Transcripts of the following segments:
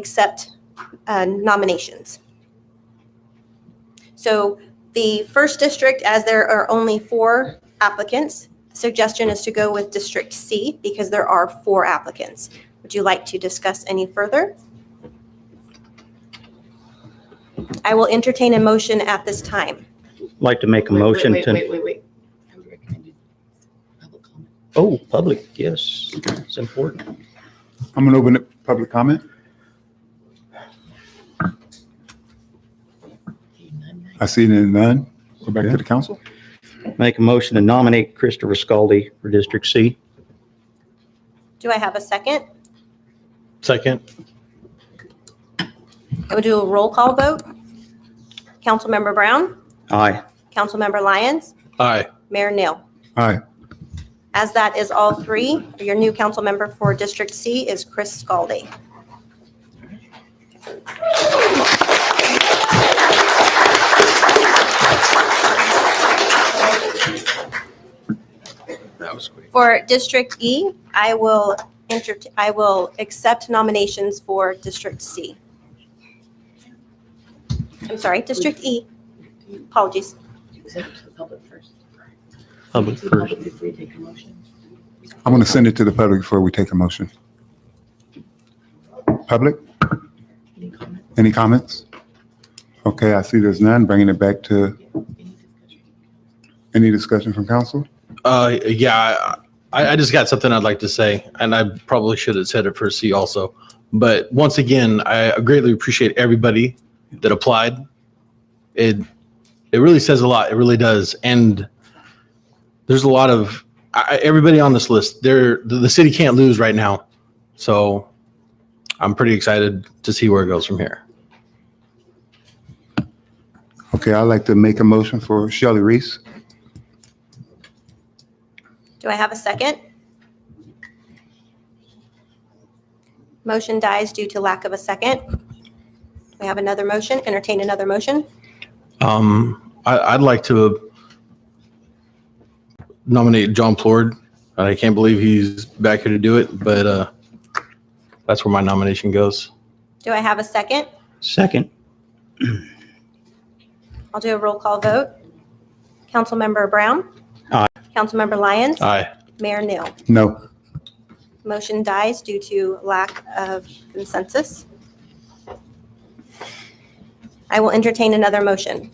accept uh, nominations. So the first district, as there are only four applicants, suggestion is to go with District C because there are four applicants. Would you like to discuss any further? I will entertain a motion at this time. Like to make a Wait, wait, motion wait, to, Wait, wait, wait. I would recommend it. Public comment. oh, public, yes, it's important. I'm gonna open up public comment. Okay, none, none. I see none. Go back to the council. Make a motion to nominate Christopher Scaldi for District C. Do I have a second? Second. I will do a roll call vote. Councilmember Brown, Aye. Councilmember Lyons, Aye. Mayor Neal. Aye. As that is all three, your new council member for District C is Chris Scaldi. That was quick. For District E, I will enter, I will accept nominations for District C. I'm sorry, District E, apologies. Except to the public first. Public To the first. Before you take a motion. I'm gonna send it to the public before we take a motion. Public, Any comment? any comments? Okay, I see there's none. Bringing it back to Any discussion? any discussion from council? Uh, yeah, I, I just got something I'd like to say, and I probably should have said it for C also. But once again, I greatly appreciate everybody that applied. It it really says a lot. It really does. And there's a lot of I, I- everybody on this list. They're the, the city can't lose right now, so I'm pretty excited to see where it goes from here. Okay, I'd like to make a motion for Shelley Reese. Do I have a second? Motion dies due to lack of a second. We have another motion, entertain another motion. Um, I, I'd like to nominate John Plord. I can't believe he's back here to do it, but uh, that's where my nomination goes. Do I have a second? Second. I'll do a roll call vote. Councilmember Brown? Aye. Councilmember Lyons? Aye. Mayor Neal? No. Motion dies due to lack of consensus. I will entertain another motion.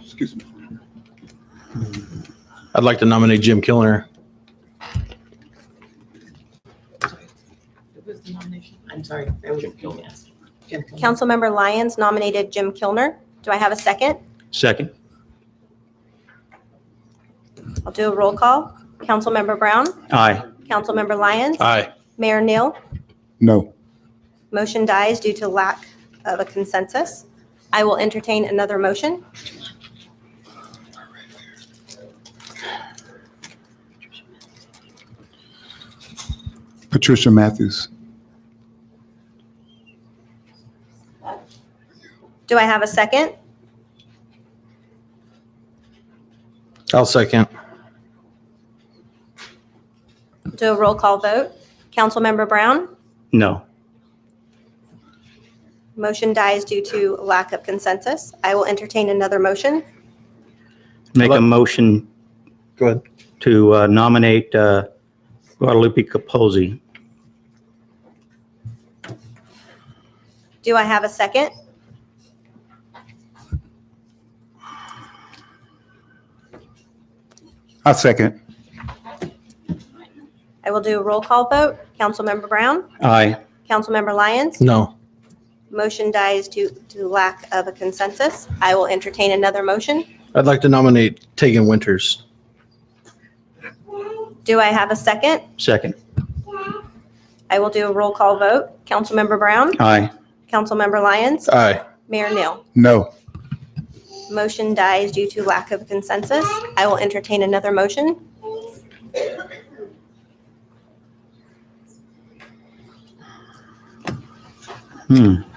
Excuse me. I'd like to nominate Jim Kilner. What was the nomination? I'm sorry, that was Jim asked. Jim Kilmer. Councilmember Lyons nominated Jim Kilner. Do I have a second? Second. I'll do a roll call. Councilmember Brown? Aye. Councilmember Lyons? Aye. Mayor Neal? No. Motion dies due to lack of a consensus. I will entertain another motion. Patricia Matthews. Do I have a second? I'll second. Do a roll call vote. Councilmember Brown? No. Motion dies due to lack of consensus. I will entertain another motion. Make a Hello? motion Go ahead. to uh, nominate uh, Guadalupe Capozzi. Do I have a second? I second. I will do a roll call vote. Councilmember Brown? Aye. Councilmember Lyons? No. Motion dies due to lack of a consensus. I will entertain another motion. I'd like to nominate Tegan Winters. Do I have a second? Second. I will do a roll call vote. Councilmember Brown? Aye. Councilmember Lyons? Aye. Mayor Neal? No. Motion dies due to lack of consensus. I will entertain another motion. Hmm.